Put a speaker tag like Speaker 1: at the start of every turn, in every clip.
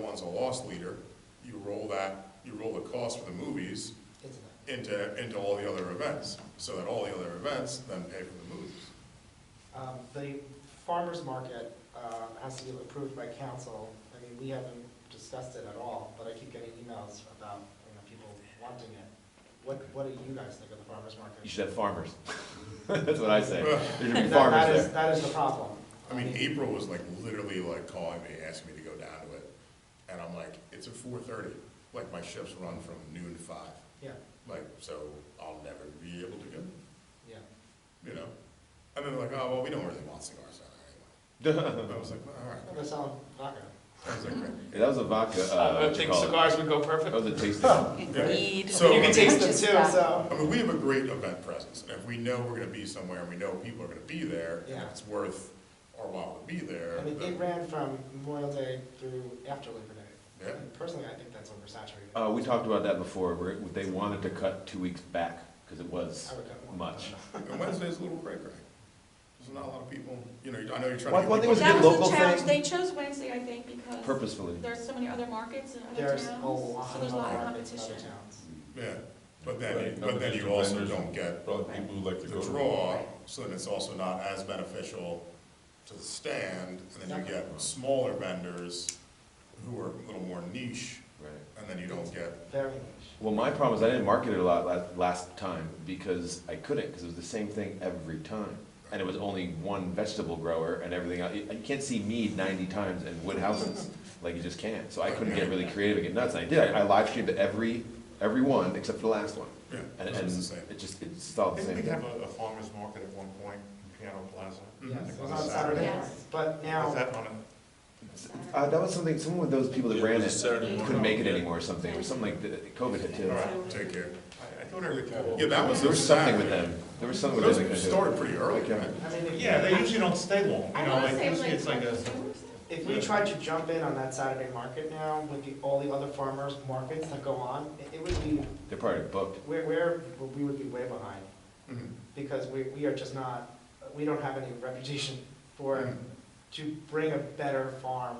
Speaker 1: one's a loss leader, you roll that, you roll the cost for the movies
Speaker 2: It's not.
Speaker 1: into, into all the other events, so that all the other events then pay for the movies.
Speaker 2: Um, The farmer's market uh, has to be approved by council. I mean, we haven't discussed it at all, but I keep getting emails about, you know, people wanting it. What, what do you guys think of the farmer's market?
Speaker 3: You should have farmers. That's what I say. There should be
Speaker 2: That- that
Speaker 3: farmers
Speaker 2: is-
Speaker 3: there.
Speaker 2: That is the problem.
Speaker 1: I mean, April was like literally like calling me, asking me to go down to it, and I'm like, it's at four thirty, like my shifts run from noon to five,
Speaker 2: Yeah,
Speaker 1: like, so I'll never be able to go,
Speaker 2: yeah.
Speaker 1: you know? And then they're like, oh, well, we don't really want cigars down there anyway. And I was like, well, all
Speaker 2: I'm
Speaker 1: right,
Speaker 2: gonna sell vodka.
Speaker 1: I was like, great.
Speaker 3: Yeah, That was a vodka, uh,
Speaker 4: I
Speaker 3: what
Speaker 4: would
Speaker 3: you
Speaker 4: think
Speaker 3: call it?
Speaker 4: cigars would go
Speaker 3: That
Speaker 4: perfect.
Speaker 3: was a tasting.
Speaker 5: Indeed.
Speaker 1: So-
Speaker 2: You can taste it too,
Speaker 5: Just that.
Speaker 2: so.
Speaker 1: I mean, we have a great event presence, and if we know we're gonna be somewhere, and we know people are gonna be there, and
Speaker 2: Yeah.
Speaker 1: it's worth our while to be there,
Speaker 2: I mean, it
Speaker 1: then-
Speaker 2: ran from Memorial Day through after Labor Day.
Speaker 1: Yeah.
Speaker 2: And Personally, I think that's oversaturated.
Speaker 3: Uh, we talked about that before, where they wanted to cut two weeks back, because it was
Speaker 2: I would cut more.
Speaker 3: much.
Speaker 1: and Wednesday's a little cray cray. There's not a lot of people, you know, I know you're trying to.
Speaker 3: Well,
Speaker 1: get
Speaker 3: well, I think
Speaker 1: people
Speaker 3: it was a
Speaker 1: to-
Speaker 3: good
Speaker 6: That
Speaker 3: local
Speaker 6: was the challenge,
Speaker 3: thing.
Speaker 6: they chose Wednesday, I think, because
Speaker 3: purposefully.
Speaker 6: there's so many other markets and other towns,
Speaker 2: There's a
Speaker 6: so
Speaker 2: lot
Speaker 6: there's
Speaker 2: of
Speaker 6: a lot of
Speaker 2: markets in other
Speaker 6: competition.
Speaker 2: towns.
Speaker 1: Yeah, but then,
Speaker 7: Right,
Speaker 1: but then you
Speaker 7: competition
Speaker 1: also
Speaker 7: vendors.
Speaker 1: don't get
Speaker 7: Probably people who like to
Speaker 1: the
Speaker 7: go to.
Speaker 1: draw, so then it's also not as beneficial to the stand, and then you get smaller vendors who are a little more niche,
Speaker 3: Right.
Speaker 1: and then you don't get,
Speaker 2: Very niche.
Speaker 3: Well, my problem is I didn't market it a lot last, last time because I couldn't, because it was the same thing every time. And it was only one vegetable grower and everything else. You, you can't see mead ninety times in wood houses, like you just can't. So I couldn't get really creative and get nuts, and I did. I, I live streamed every, every one except for the last one.
Speaker 1: yeah,
Speaker 3: And,
Speaker 1: it's
Speaker 3: and
Speaker 1: just the same.
Speaker 3: it just, it's all the
Speaker 8: Didn't
Speaker 3: same
Speaker 8: we
Speaker 3: thing.
Speaker 8: have a a farmer's market at one point in Piano Plaza?
Speaker 2: Yes,
Speaker 1: Mm-hmm.
Speaker 2: it was
Speaker 8: On
Speaker 2: on Saturday
Speaker 6: Saturday.
Speaker 2: night, but
Speaker 8: Was
Speaker 2: now,
Speaker 8: that on a?
Speaker 3: Uh, that was something, someone with those people that
Speaker 7: Yeah, it
Speaker 3: ran
Speaker 7: was a
Speaker 3: it
Speaker 7: Saturday
Speaker 3: couldn't
Speaker 7: morning.
Speaker 3: make it anymore or something, or something like, that. COVID hit too.
Speaker 8: Alright.
Speaker 1: Take care.
Speaker 8: I- I thought I recalled.
Speaker 1: Yeah, that was.
Speaker 3: There was something with
Speaker 1: Saturday.
Speaker 3: them. There was something with them.
Speaker 1: Those started pretty early,
Speaker 3: Okay.
Speaker 1: right?
Speaker 2: I mean, if-
Speaker 8: Yeah, they usually don't stay long, you
Speaker 6: I
Speaker 8: know,
Speaker 6: wanna
Speaker 8: like
Speaker 6: say it was
Speaker 8: usually it's like a,
Speaker 6: two or something.
Speaker 2: If we tried to jump in on that Saturday market now with the, all the other farmers markets that go on, it- it would be,
Speaker 3: They're probably booked.
Speaker 2: we're, we're, we would be way behind
Speaker 8: Mm-hmm.
Speaker 1: Mhm.
Speaker 2: because we, we are just not, we don't have any reputation
Speaker 8: Mm.
Speaker 2: for, to bring a better farm.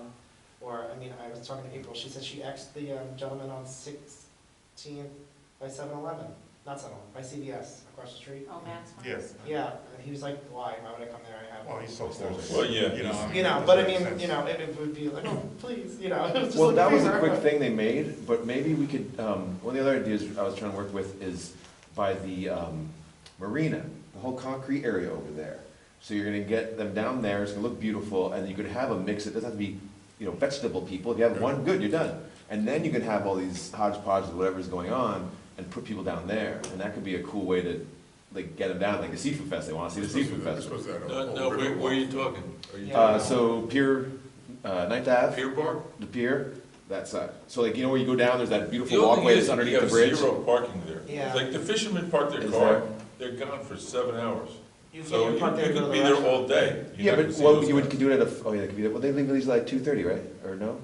Speaker 2: Or, I mean, I was talking to April, she said she asked the um, gentleman on Sixteenth by Seven Eleven, not Seven Eleven, by CVS across the street.
Speaker 6: Oh, Matt's fine.
Speaker 8: yes.
Speaker 2: Yeah, and he was like, why, why would I come there, I have.
Speaker 8: Well, he's so close.
Speaker 7: Well, yeah,
Speaker 8: You know, I mean,
Speaker 2: You know,
Speaker 8: it
Speaker 2: but I
Speaker 8: doesn't
Speaker 2: mean,
Speaker 8: make
Speaker 2: you
Speaker 8: sense.
Speaker 2: know, it, it would be like, oh, please, you know. it just
Speaker 3: Well,
Speaker 2: like
Speaker 3: that was a
Speaker 2: favor.
Speaker 3: quick thing they made, but maybe we could, um, one of the other ideas I was trying to work with is by the, um, marina, the whole concrete area over there. So you're gonna get them down there, it's gonna look beautiful, and you could have a mix, it doesn't have to be, you know, vegetable people, if you have one, good, you're done. And then you can have all these hodgepodge of whatever's going on, and put people down there, and that could be a cool way to, like, get them down, like the seafood fest, they wanna see the seafood
Speaker 1: We're
Speaker 3: fest.
Speaker 1: supposed to have a
Speaker 4: No,
Speaker 1: whole
Speaker 4: no, where,
Speaker 1: river
Speaker 4: where are
Speaker 1: walk.
Speaker 4: you talking? Are you
Speaker 2: Yeah.
Speaker 3: Uh, so Pier, uh, Ninth Ave.
Speaker 4: talking Pier Park?
Speaker 3: the pier, that side. So like, you know where you go down, there's that
Speaker 7: The
Speaker 3: beautiful
Speaker 7: only
Speaker 3: walkway
Speaker 7: thing
Speaker 3: that's
Speaker 7: is,
Speaker 3: underneath the
Speaker 7: You
Speaker 3: bridge?
Speaker 7: have zero parking there.
Speaker 2: Yeah.
Speaker 7: Like, the fishermen park their
Speaker 3: Is
Speaker 7: car,
Speaker 3: there?
Speaker 7: they're gone for seven hours.
Speaker 2: You
Speaker 7: So
Speaker 2: can't
Speaker 7: you
Speaker 2: park there
Speaker 7: you
Speaker 2: and go to
Speaker 7: could
Speaker 2: the
Speaker 7: be there
Speaker 2: restaurant.
Speaker 7: all day. You're
Speaker 3: Yeah,
Speaker 7: not gonna
Speaker 3: but,
Speaker 7: see
Speaker 3: well,
Speaker 7: those
Speaker 3: you would
Speaker 7: guys.
Speaker 3: could do it at a, oh yeah, they could be, well, they leave these like two thirty, right? Or no?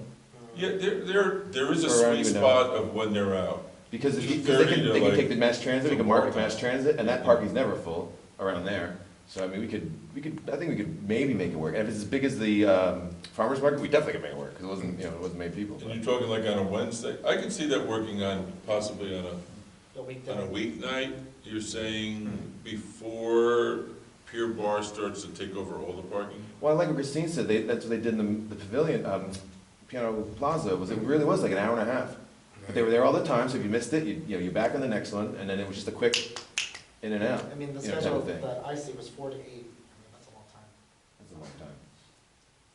Speaker 7: Yeah, there, there, there is a
Speaker 3: Or around
Speaker 7: sweet
Speaker 3: even now.
Speaker 7: spot of when they're out.
Speaker 3: Because if you,
Speaker 7: 2:30
Speaker 3: because they can,
Speaker 7: to,
Speaker 3: they can
Speaker 7: like,
Speaker 3: take the mass transit, they can
Speaker 7: to
Speaker 3: market
Speaker 7: Waltham.
Speaker 3: mass transit, and that parking's never full around there. So I mean, we could, we could, I think we could maybe make it work. And if it's as big as the, um, farmer's market, we definitely could make it work, because it wasn't, you know, it wasn't many people.
Speaker 7: And
Speaker 3: but-
Speaker 7: you're talking like on a Wednesday, I can see that working on, possibly on a
Speaker 2: The weekday.
Speaker 7: On a weeknight, you're saying before Pier Bar starts to take over all the parking?
Speaker 3: Well, like what Christine said, they, that's what they did in the, the pavilion, um, Piano Plaza, was it really was like an hour and a half. But they were there all the time, so if you missed it, you, you know, you're back on the next one, and then it was just a quick in and out.
Speaker 2: I mean, the
Speaker 3: you know, type
Speaker 2: schedule
Speaker 3: of thing.
Speaker 2: that I see was four to eight, I mean, that's a long time,
Speaker 3: That's a long time.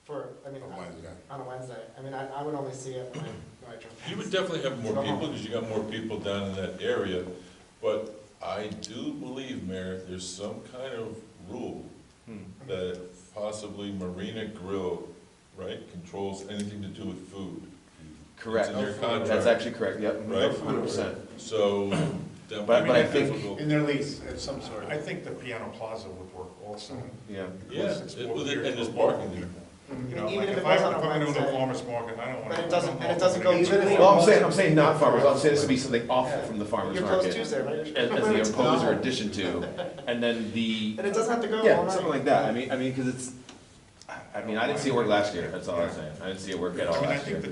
Speaker 2: for, I mean,
Speaker 1: On Wednesday.
Speaker 2: on a Wednesday, I mean, I, I would only see it when I, when I drove past.
Speaker 7: You would definitely have more
Speaker 2: Come on.
Speaker 7: people, because you got more people down in that area, but I do believe, Mayor, there's some kind of rule
Speaker 8: Hmm.
Speaker 7: that possibly Marina Grill, right, controls anything to do with food.
Speaker 3: Correct. Oh,
Speaker 7: It's in their contract.
Speaker 3: That's actually correct, yep,
Speaker 7: Right.
Speaker 3: hundred percent.
Speaker 7: So that
Speaker 3: But-
Speaker 7: might
Speaker 3: but I
Speaker 7: be
Speaker 3: think-
Speaker 7: difficult.
Speaker 8: In their lease of some sort. I think the Piano Plaza would work also.
Speaker 1: Mm-hmm.
Speaker 3: Yeah,
Speaker 7: Yeah,
Speaker 8: Because it's
Speaker 7: it-
Speaker 8: more
Speaker 7: and
Speaker 8: beer
Speaker 7: there's
Speaker 8: for
Speaker 7: parking there.
Speaker 8: You
Speaker 2: mean,
Speaker 8: know,
Speaker 2: even
Speaker 8: like
Speaker 2: if
Speaker 8: if
Speaker 2: it
Speaker 8: I,
Speaker 2: was
Speaker 8: if
Speaker 2: on a
Speaker 8: I'm gonna do a
Speaker 2: Wednesday-
Speaker 8: farmer's market, I don't wanna.
Speaker 2: But it
Speaker 8: I don't
Speaker 2: doesn't-
Speaker 8: know
Speaker 2: and it
Speaker 8: if
Speaker 2: doesn't
Speaker 8: I'm
Speaker 2: go
Speaker 8: gonna get
Speaker 2: either
Speaker 8: to-
Speaker 2: way.
Speaker 3: well, I'm saying, I'm saying not farmers, I'm saying this would be something off
Speaker 2: Yeah.
Speaker 3: from the farmer's
Speaker 2: You're closed
Speaker 3: market.
Speaker 2: Tuesday, right?
Speaker 3: As, as the imposer addition to, and then the,
Speaker 2: And it doesn't have to go all night.
Speaker 3: yeah, something like that, I mean, I mean, because it's, I- I mean, I didn't see it work last year, that's all I'm saying, I didn't see it work at all
Speaker 8: I mean, I
Speaker 3: last
Speaker 8: think
Speaker 3: year.
Speaker 8: the